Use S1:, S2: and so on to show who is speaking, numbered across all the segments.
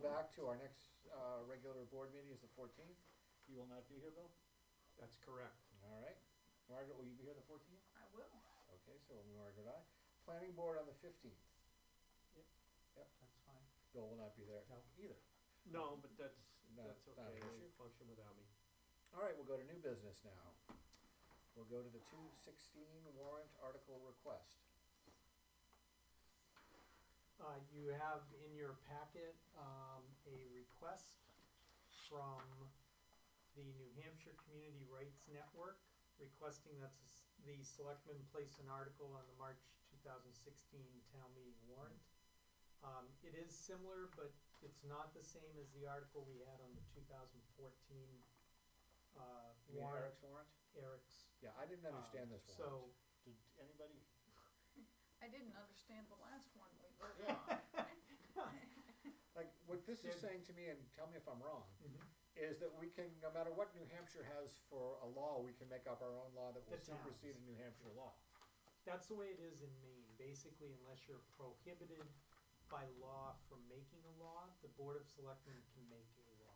S1: back to our next, uh, regular board meeting is the fourteenth. You will not be here, Bill?
S2: That's correct.
S1: All right. Margaret, will you be here the fourteenth?
S3: I will.
S1: Okay, so Margaret, I. Planning board on the fifteenth.
S4: That's fine.
S1: Bill will not be there
S4: No.
S1: either.
S2: No, but that's,
S1: No,
S2: that's
S1: not
S2: okay,
S1: an
S2: they
S1: issue.
S2: function without me.
S1: All right, we'll go to new business now. We'll go to the two sixteen warrant article request.
S4: Uh, you have in your packet, um, a request from the New Hampshire Community Rights Network requesting that s- the selectmen place an article on the March two thousand sixteen town meeting warrant. Um, it is similar, but it's not the same as the article we had on the two thousand fourteen, uh,
S1: You mean
S4: warrant,
S1: Eric's warrant?
S4: Eric's.
S1: Yeah, I didn't
S4: um,
S1: understand this
S4: So,
S1: warrant. Did anybody?
S3: I didn't understand the last one we voted on.
S1: Like, what this is
S4: Did-
S1: saying to me, and tell me if I'm wrong,
S4: Mhm.
S1: is that we can, no matter what New Hampshire has for a law, we can make up our own law that will
S4: The towns.
S1: supersede a New Hampshire law.
S4: That's the way it is in Maine, basically unless you're prohibited by law from making a law, the Board of Selectmen can make a law.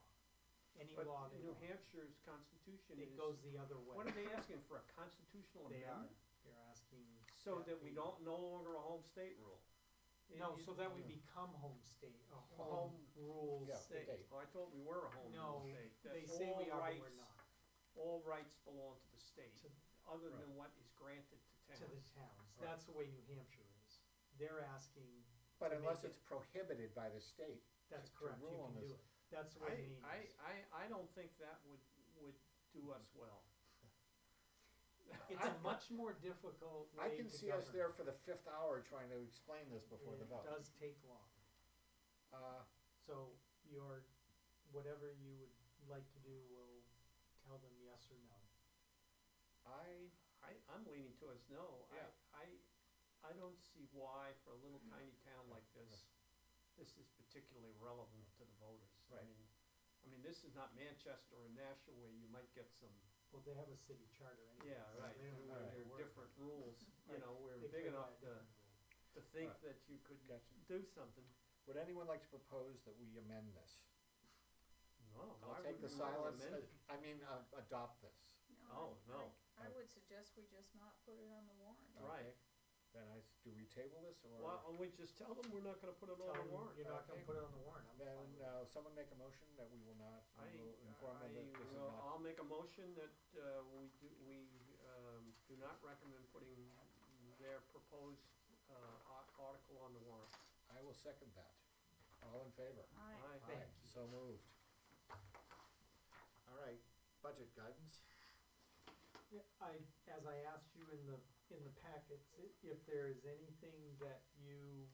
S4: Any
S2: But
S4: law they
S2: New
S4: want,
S2: Hampshire's constitution
S4: it
S2: is,
S4: goes the other
S2: what are
S4: way,
S2: they asking for, a constitutional
S4: they are,
S2: amendment?
S4: they're asking.
S2: So that we don't, no longer a home state rule. Oh, It-
S4: No,
S2: it-
S4: so that we become home state, a home
S1: Home-
S4: rule
S1: yeah,
S4: state.
S1: state.
S2: Oh, I thought we were a home
S4: No,
S2: rule state.
S4: They
S2: That
S4: say we
S2: all
S4: are, but we're
S2: rights-
S4: not,
S2: All rights belong to the state,
S4: to,
S2: other
S1: Right.
S2: than what is granted to
S4: to the
S2: towns.
S4: towns,
S1: Right.
S4: that's the way New Hampshire is. They're asking,
S1: But
S4: To make
S1: unless
S4: it-
S1: it's prohibited by the state.
S4: that's
S1: To- to
S4: correct, you
S1: rule on
S4: can
S1: this.
S4: do it, that's the way Maine
S2: I,
S4: is.
S2: I, I, I don't think that would, would do us well.
S4: It's a much more difficult way
S1: I
S4: to
S1: can see us
S4: govern.
S1: there for the fifth hour trying to explain this before the
S4: It
S1: vote.
S4: does take long.
S1: Uh,
S4: So your, whatever you would like to do will tell them yes or no.
S1: I,
S2: I, I'm leaning towards no.
S1: Yeah. Mm.
S2: I, I, I don't see why for a little tiny town like this, this is particularly relevant to the voters. I
S1: Right.
S2: mean, I mean, this is not Manchester or Nashua where you might get some,
S4: Well, they have a city charter anyway.
S2: yeah,
S4: so
S2: right,
S4: they don't
S1: Right.
S4: really
S2: there are
S4: work.
S2: different rules, you
S4: Right.
S2: know, we're
S4: They
S2: big
S4: play
S2: enough
S4: by a
S2: to,
S4: different rule.
S2: to think
S1: Right.
S2: that you could
S1: Gotcha.
S2: do something.
S1: would anyone like to propose that we amend this?
S2: No,
S1: I'll
S2: why would
S1: take the
S2: we wanna
S1: silence,
S2: amend
S1: as-
S2: it?
S1: I mean, uh, adopt this.
S3: I-
S2: Oh, no. Oh,
S3: I I would suggest we just not put it on the warrant.
S2: Right.
S1: Okay. Then I, s- do we table this or?
S2: Well, we just tell them we're not gonna put it
S4: Tell
S2: on the
S4: them
S2: warrant.
S4: You're not gonna
S1: Okay.
S4: put it on the warrant, I'm
S1: Then,
S4: fine with it.
S1: uh, someone make a motion that we will not,
S2: I,
S1: we will inform
S2: I,
S1: them that this is
S2: will-
S1: not.
S2: I'll make a motion that, uh, we do, we, um, do not recommend putting their proposed, uh, ar- article on the warrant.
S1: I will second that. All in favor?
S3: I,
S2: Aye.
S4: Thank you.
S1: So moved. All right, budget guidance.
S4: Yeah, I, as I asked you in the, in the packets, i- if there is anything that you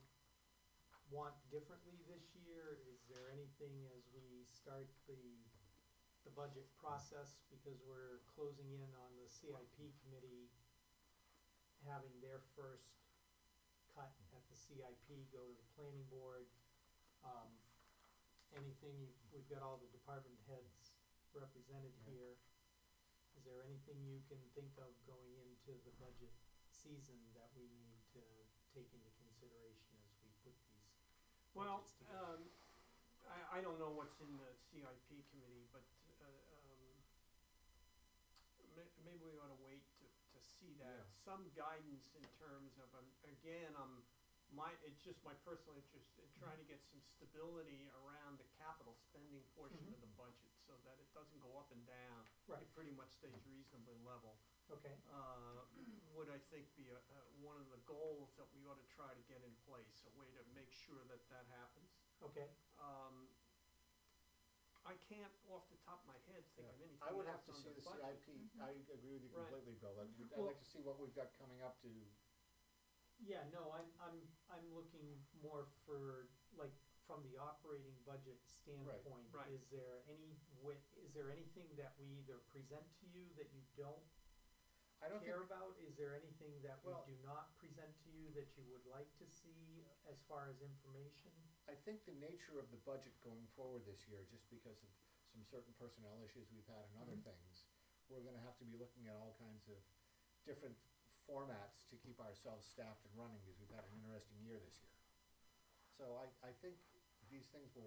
S4: want differently this year, is there anything as we start the, the budget process, because we're closing in on the CIP committee having their first cut at the CIP, go to the planning board, um, anything, you- we've got all the department heads represented
S1: Yeah.
S4: here. Is there anything you can think of going into the budget season that we need to take into consideration as we put these
S2: Well,
S4: budgets together?
S2: um, I, I don't know what's in the CIP committee, but, uh, um, ma- maybe we ought to wait to, to see
S1: Yeah.
S2: that, some guidance in terms of, um, again, um, my, it's just my personal interest in trying to get some stability around the capital spending portion of the budget, so that it doesn't go up and down.
S4: Right.
S2: It pretty much stays reasonably level
S4: Okay,
S2: uh, would I think be a, a, one of the goals that we ought to try to get in place, a way to make sure that that happens.
S4: okay,
S2: Um, I can't off the top of my head think of anything
S1: I would have to
S2: else on
S1: see
S2: the
S1: the
S2: budget.
S1: CIP, I agree with you
S2: Right.
S1: completely, Bill, I'd- I'd
S4: Well-
S1: like to see what we've got coming up to,
S4: yeah, no, I'm, I'm, I'm looking more for, like, from the operating budget standpoint,
S2: right.
S4: is there any wi- is there anything that we either present to you that you don't
S1: I don't think,
S4: care about? Is there anything that we
S1: Well-
S4: do not present to you that you would like to see as far as information?
S1: I think the nature of the budget going forward this year, just because of some certain personnel issues we've had and other things, we're gonna have to be looking at all kinds of different formats to keep ourselves staffed and running, because we've had an interesting year this year. So I, I think these things will